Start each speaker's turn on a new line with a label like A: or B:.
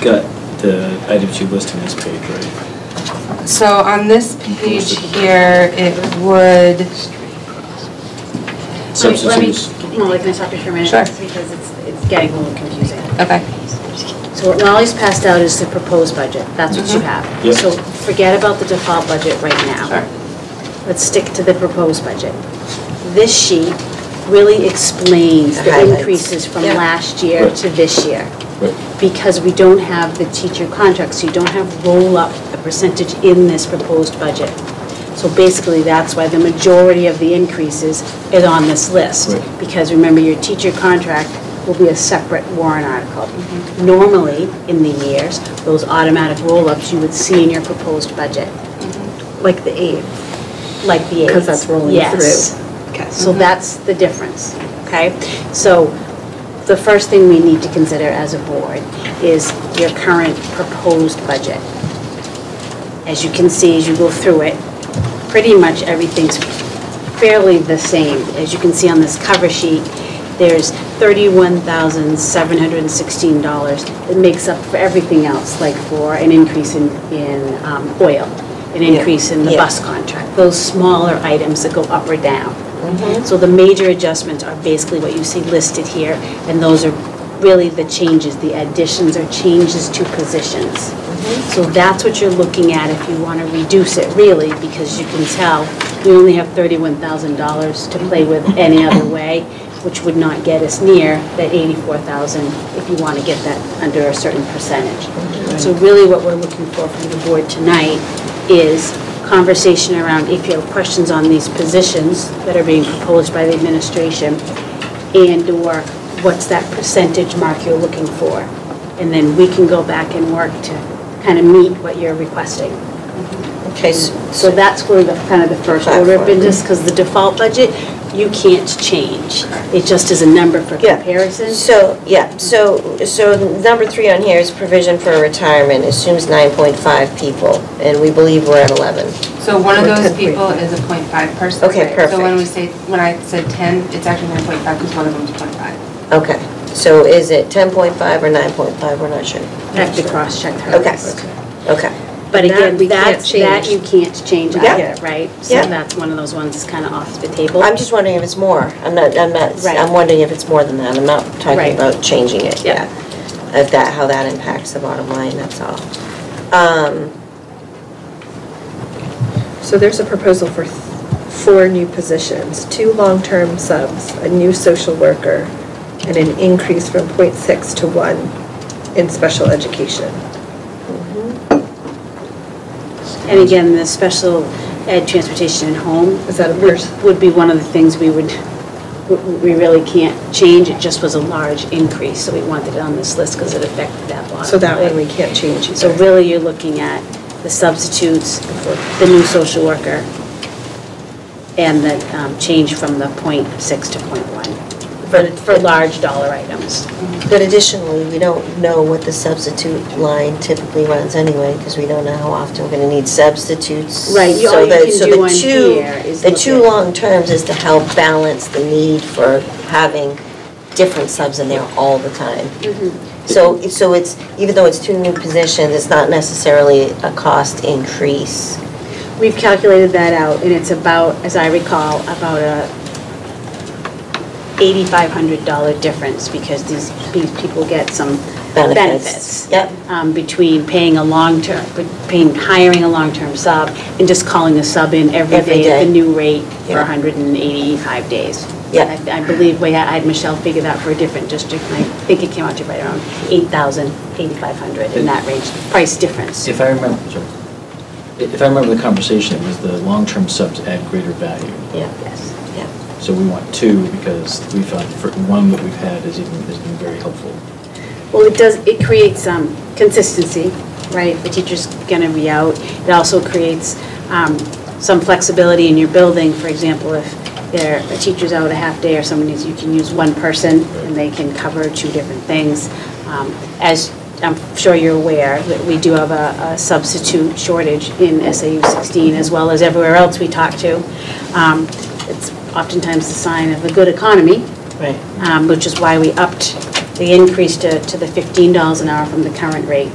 A: got the items you list on this page, right?
B: So on this page here, it would,
A: Substitutes.
C: Let me, Molly, can I stop you for a minute?
B: Sure.
C: Because it's, it's getting a little confusing.
A: Oh.
B: okay,
C: So what Molly's passed out is the proposed budget, that's what you
A: Mm-hmm.
B: Mhm.
C: have.
A: Yep.
C: So forget about the default budget right now. Let's stick to the proposed budget. This sheet really explains
D: The
C: the
D: highlights.
C: increases from
B: Yeah.
C: last year
A: Right.
C: to this year.
A: Right.
C: Because we don't have the teacher contract, so you don't have roll-up, the percentage in this proposed budget. So basically, that's why the majority of the increases is on this list.
A: Right.
C: Because remember, your teacher contract will be a separate warrant article.
D: Mm-hmm.
C: Normally, in the years, those automatic roll-ups you would see in your proposed budget,
D: Like the eighth,
C: like the aides.
D: Mm-hmm. because that's rolling through.
C: Yes.
D: Okay.
C: So that's the difference, okay? So the first thing we need to consider as a board is your current proposed budget. As you can see, as you go through it, pretty much everything's fairly the same. As you can see on this cover sheet, there's $31,716 that makes up for everything else, like for an increase in, in um, oil, an
D: Yeah.
C: increase in the
D: Yeah.
C: bus contract, those smaller items that go up or down. So the major adjustments are basically what you see listed here, and those are really the changes, the additions or changes to positions. So that's what you're looking at if you want to reduce it, really, because you can tell, we only have $31,000 to play with any other way, which would not get us near that 84,000 if you want to get that under a certain percentage. So really what we're looking for from the board tonight is conversation around if you have questions on these positions that are being proposed by the administration, and/or what's that percentage mark you're looking for? And then we can go back and work to kind of meet what you're requesting.
D: Okay, s-
C: So that's where the, kind of the first order of
D: Platform.
C: business, because the default budget, you can't change. It just is a number for
D: Yeah.
C: comparison.
D: So, yeah, so, so number three on here is provision for retirement, assumes 9.5 people, and we believe we're at 11.
E: So one of
D: Or
E: those
D: 10.5.
E: people is a point five person.
D: Okay,
E: right? So when
D: perfect.
E: we say, when I said ten, it's actually nine point five because one of them's point five.
D: Okay, so is it 10.5 or 9.5, we're not sure.
C: I have to cross-check her.
D: Okay, okay,
C: But again,
D: That we can't
C: that's, that you can't change
D: Yeah.
C: either, right? So
D: Yeah.
C: that's one of those ones that's kind of off the table.
D: I'm just wondering if it's more, I'm not, I'm not,
C: Right.
D: I'm wondering if it's more than that, I'm not talking
C: Right.
D: about changing it,
C: Yeah.
D: yeah. Of that, how that impacts the bottom line, that's all. Um,
F: So there's a proposal for th- four new positions, two long-term subs, a new social worker, and an increase from .6 to 1 in special education.
C: And again, the special ed transportation and home.
F: Is that a
C: would-
F: person?
C: Would be one of the things we would, w- we really can't change. It just was a large increase, so we wanted it on this list because it affected that bottom
F: So that one
C: line.
F: we can't change either.
C: So really, you're looking at the substitutes, the new social worker, and the um, change from the .6 to .1 for, for large dollar items.
D: But additionally, we don't know what the substitute line typically runs anyway, because we don't know how often we're gonna need substitutes.
C: Right, you-
D: So
C: all you
D: the-
C: can
D: so
C: do
D: the
C: on
D: two-
C: here is
D: The
C: look
D: two
C: at-
D: long terms is to help balance the need for having different subs in there all the time.
C: Mm-hmm.
D: So, so it's, even though it's two new positions, it's not necessarily a cost increase.
C: We've calculated that out, and it's about, as I recall, about a $8,500 difference because these, these people get some
D: Benefits.
C: benefits.
D: Yep.
C: Um, Between paying a long-term, between hiring a long-term sub and just calling the sub in every
D: Every
C: day at
D: day.
C: the new rate for
D: Yeah.
C: 185 days.
D: Yep.
C: I- I believe, we had- I had Michelle figure that for a different district, and I think it came out to right around 8,000, 8,500 in that range, price difference.
A: If I remember, sorry. If I remember the conversation, it was the long-term subs add greater value.
D: Yeah.
C: Yes.
D: Yeah.
A: So we want two because we found the fir- one that we've had is even, has been very helpful.
C: Well, it does, it creates um, consistency, right? The teacher's going to be out. It also creates um, some flexibility in your building. For example, if there, a teacher's out a half day or someone is, you can use one person and they can cover two different things. Um, As I'm sure you're aware, that we do have a a substitute shortage in SAU 16 as well as everywhere else we talk to. Um, It's oftentimes the sign of a good economy,
D: Right.
C: um, which is why we upped the increase to to the $15 an hour from the current rate.